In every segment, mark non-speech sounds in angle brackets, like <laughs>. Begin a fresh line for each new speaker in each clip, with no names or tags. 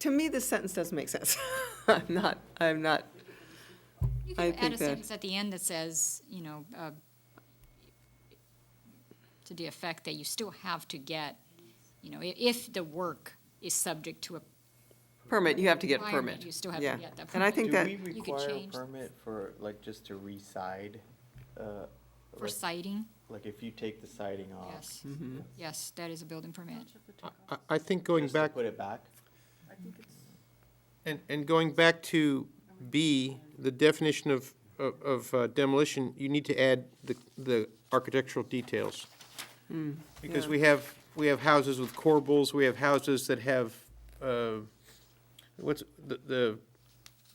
to me, this sentence doesn't make sense. <laughs> I'm not, I'm not,
You
I
can add
think
a
that-
sentence at the end that says, you know, uh, to the effect that you still have to get, you know, i- if the work is subject to a,
permit, you have to get a
Requirement,
permit.
you still have to
Yeah.
get that
And I
permit.
think that,
Do we
You could
require a
change-
permit for, like, just to re-side? uh,
for
Like,
siding,
like if you take the siding off?
yes.
Mm-hmm.
Yes, that is a building permit.
I, I think going
Just to
back,
put it back?
and, and going back to B, the definition of, of- of uh, demolition, you need to add the, the architectural details.
Hmm.
Because we have, we have houses with corbels, we have houses that have, uh, what's, the, the,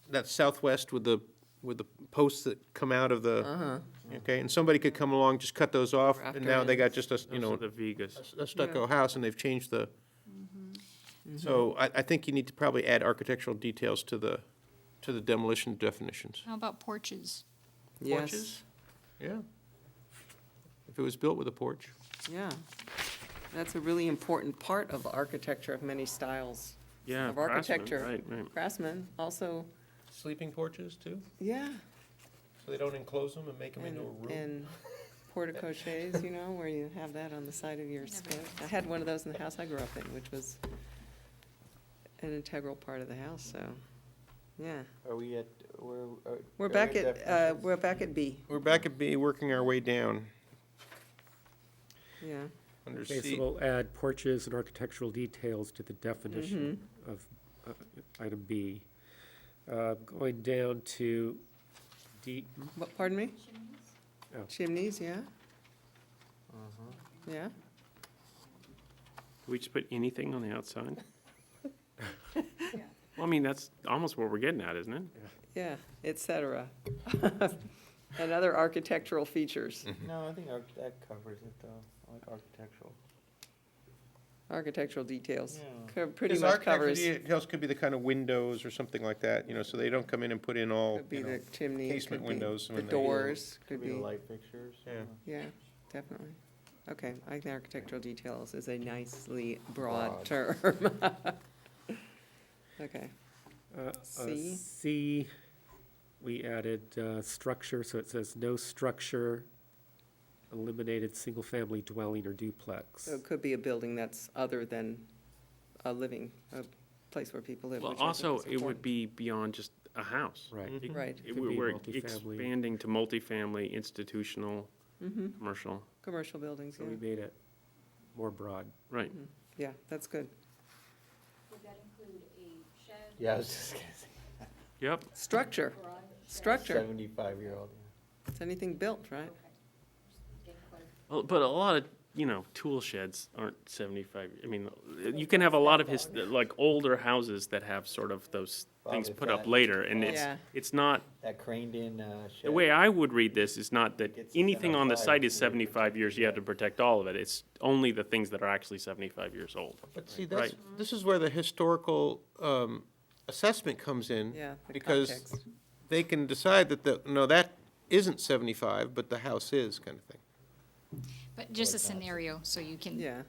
that southwest with the, with the posts that come out of
Uh-huh.
the, okay, and somebody could come along, just cut those off, and now they got just a, s- you know,
the Vegas.
a stucco house and they've changed the, so I, I think you need to probably add architectural details to the, to the demolition definitions.
How about porches?
yes,
Porches? Yeah. If it was built with a porch.
yeah. That's a really important part of architecture of many styles.
Yeah,
Of
craftsman,
architecture.
Right, right.
Craftsmen also,
Sleeping porches too,
yeah.
so they don't enclose them and make them
And, and porticoches, you know, where you have that on the side of your skirt. I had one of those in the house I grew up in, which was an integral part of the house, so, yeah.
Are we at, we're. are-
We're
are
back
we
at, uh,
definitions?
we're back at B,
We're back at B, working our way down
yeah.
under
Okay, so
C.
we'll add porches and architectural details to the definition
Mm-hmm.
of uh, item B. Uh, Going down to D,
What, pardon me?
Oh.
Chimneys, yeah,
Mhm.
yeah.
We just put anything on the
<laughs>
outside? Well, I mean, that's almost what we're getting at, isn't it?
Yeah, et cetera. <laughs> And other architectural features,
Mm.
No, I think arch- that covers it though, I like architectural.
architectural details,
Yeah.
Co- pretty much covers,
Because architectural details could be the kind of windows or something like that, you know, so they don't come in and put in all,
could be
Oh, you know,
the chimney. it
casement
could be
windows
The
when they-
doors,
Could be the light fixtures.
Yeah.
Yeah, definitely. Okay, I think architectural details is a nicely broad
Broad.
term. <laughs> Okay,
uh, uh,
C.
C, we added uh, structure, so it says no structure, eliminated single-family dwelling or duplex.
so it could be a building that's other than a living, a place where people live.
Well,
which I think
also,
is
it would
important.
be beyond just a house.
Right.
It-
Right.
it-
Could be
We're
multifamily.
expanding to multifamily, institutional,
Mhm.
commercial,
Commercial buildings,
So we
yeah,
made it more broad.
right.
yeah, that's good.
Would that include a shed,
Yeah, I was just gonna say,
Yep,
Structure, structure,
seventy-five year old.
it's anything built, right?
Well, but a lot of, you know, tool sheds aren't seventy-five, I mean, you can have a lot of his, like, older houses that have sort of those things
Probably
put up
flat.
later, and it's,
Yeah.
it's not
That craned in, uh, shed.
The way I would read this is not that
It's
anything on the
75
site is
years.
seventy-five years, you have to protect all of it, it's only the things that are actually seventy-five years old.
But see, that's, this is where the historical um, assessment comes in.
Yeah, the
Because
context.
they can decide that the, no, that isn't 75, but the house is, kind of thing.
But just a scenario, so you can
Yeah,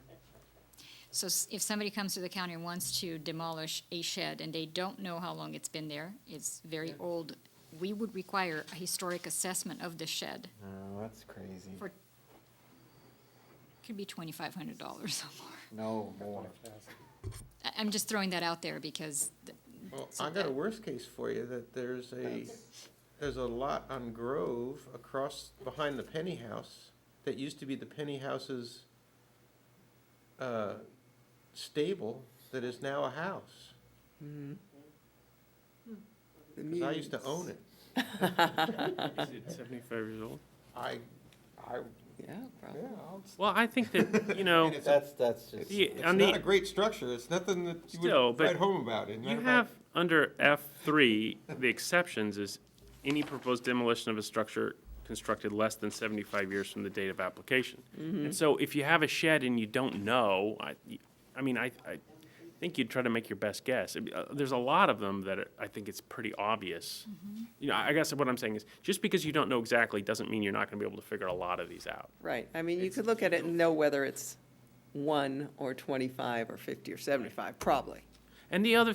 So s- if somebody comes to the county and wants to demolish a shed and they don't know how long it's been there, it's very old, we would require a historic assessment of the shed.
No, that's crazy.
For- Could be twenty-five hundred dollars or more.
No more.
I, I'm just throwing that out there because, th-
Well,
So
I got a
that-
worst case for you, that there's a, there's a lot on Grove across, behind the Penny House, that used to be the Penny House's uh, stable, that is now a house,
the
'cause I used to
muse.
own it.
Is it seventy-five years old?
I, I,
<laughs> Yeah,
yeah,
probably.
I'll-
Well, I think that,
<laughs>
<laughs>
you know,
It's a-
That's, that's just.
Yeah,
it's
on
not
the-
a great structure, it's nothing that
Still,
you would
but
write home about. and
you
matter of
have,
fact,
under F three, the exceptions is any proposed demolition of a structure constructed less than seventy-five years from the date of application. And so if you have a shed and you don't know, I, I mean, I, I think you'd try to make your best guess. I mean, uh, There's a lot of them that are- I think it's pretty obvious. You know, I I guess what I'm saying is, just because you don't know exactly doesn't mean you're not gonna be able to figure a lot of these out.
Right, I mean, you could look at it and know whether it's one or twenty-five or fifty or seventy-five, probably.
And the other